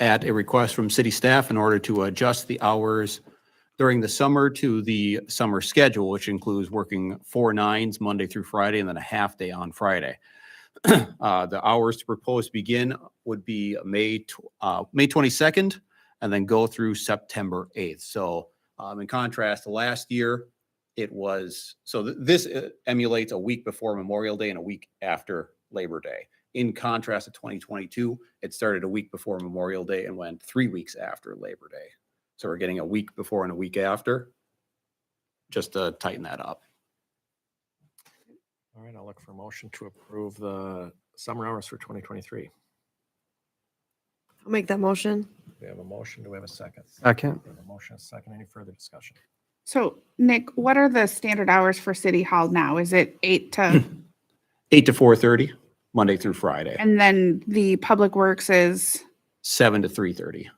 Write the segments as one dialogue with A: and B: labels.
A: at a request from city staff in order to adjust the hours during the summer to the summer schedule, which includes working four nines Monday through Friday and then a half day on Friday. Uh, The hours to propose begin would be May, tw- uh, May 22nd and then go through September 8th. So um, in contrast to last year, it was, so th- this uh, emulates a week before Memorial Day and a week after Labor Day. In contrast to 2022, it started a week before Memorial Day and went three weeks after Labor Day. So we're getting a week before and a week after, just to tighten that up.
B: All right, I'll look for a motion to approve the summer hours for 2023.
C: I'll make that motion.
B: We have a motion. Do we have a second?
D: Second.
B: We have a motion, a second. Any further discussion?
E: So Nick, what are the standard hours for City Hall now? Is it eight to,
A: Eight to four thirty, Monday through Friday,
E: and then the Public Works is,
A: seven to three thirty.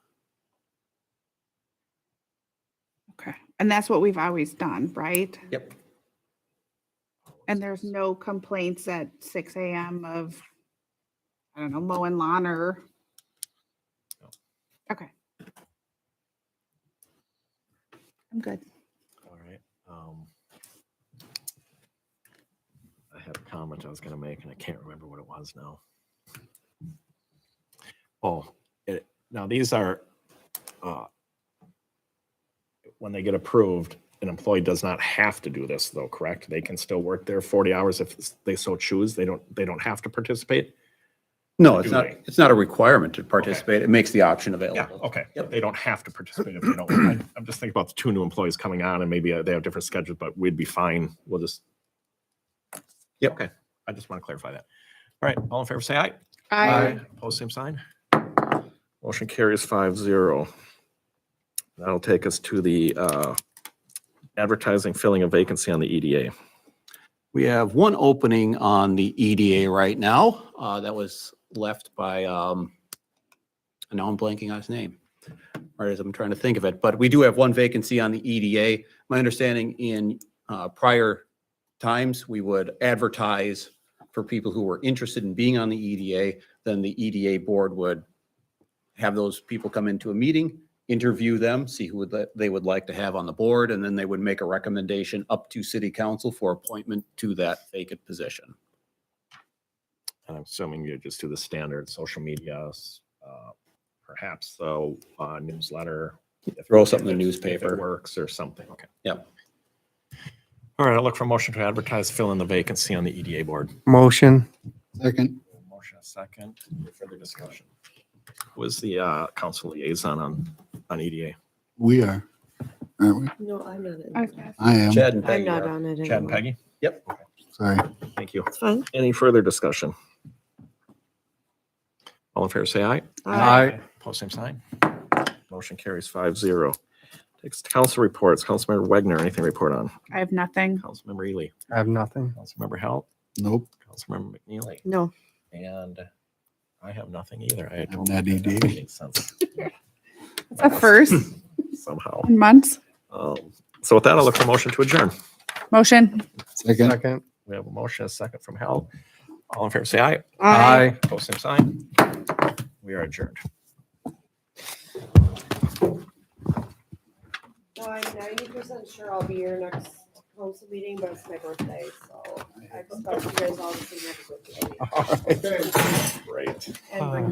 E: okay. And that's what we've always done, right?
A: Yep.
E: And there's no complaints at six AM of, I don't know, mowing lawn or?
B: No.
E: Okay. I'm good.
B: All right. um, I had a comment I was going to make and I can't remember what it was now. Oh, it, now these are, uh, when they get approved, an employee does not have to do this though, correct? They can still work their 40 hours if they so choose. They don't, they don't have to participate?
A: No, it's
B: Do
A: not,
B: they?
A: it's not a requirement to participate. It makes the option available.
B: okay.
A: Yep.
B: They don't have to participate if they don't. I- I'm just thinking about the two new employees coming on and maybe uh, they have different schedules, but we'd be fine. We'll just.
A: Yep.
B: Okay. I just want to clarify that. All right, all in favor, say aye.
E: I,
B: Opposed, same sign. Motion carries five zero. That'll take us to the uh, advertising filling a vacancy on the E EDA.
A: We have one opening on the EDA right now, uh, that was left by, um, and now I'm blanking on his name. Right as I'm trying to think of it, but we do have one vacancy on the EDA. My understanding in, uh, prior times, we would advertise for people who were interested in being on the EDA, then the EDA board would have those people come into a meeting, interview them, see who would, that they would like to have on the board, and then they would make a recommendation up to city council for appointment to that vacant position.
B: And I'm assuming you just do the standard social media, uh, perhaps, so uh, newsletter. if-
A: Throw something in the
B: if it- if it
A: newspaper.
B: Works or something, okay.
A: Yep.
B: All right, I'll look for a motion to advertise, fill in the vacancy on the EDA board.
D: Motion.
F: Second,
B: Motion a second, further discussion. Was the uh, council liaison on, on E EDA?
F: we are, aren't we?
C: No, I'm not. in
E: I
C: it.
E: was gonna-
F: I am,
A: Chad and
C: I'm
A: Peggy
C: not
A: are.
C: on it
B: Chad and
C: anymore.
B: Peggy?
F: sorry.
B: Thank you.
C: It's fine.
B: Any further discussion? All in favor, say aye.
C: I
B: Post same sign. Motion carries five zero. Takes to council reports. Councilmember Wagner, anything to report on?
E: I have nothing.
B: Councilmember Ely,
D: I have nothing.
B: Councilmember Hal,
F: Nope,
B: Councilmember McNeely,
C: No,
B: and I have nothing either. I
F: I'm not ED.
B: Makes sense
E: It's a first
B: Somehow.
E: in months.
B: Um, So with that, I'll look for a motion to adjourn.
E: Motion.
F: second,
D: Second.
B: We have a motion, a second from Hal. All in favor, say aye.
C: I.
B: Post same sign. We are adjourned.
C: Well, I'm ninety percent sure I'll be here next council meeting, but it's my birthday, so I expect you guys all to see next week.
B: Great.
C: And bring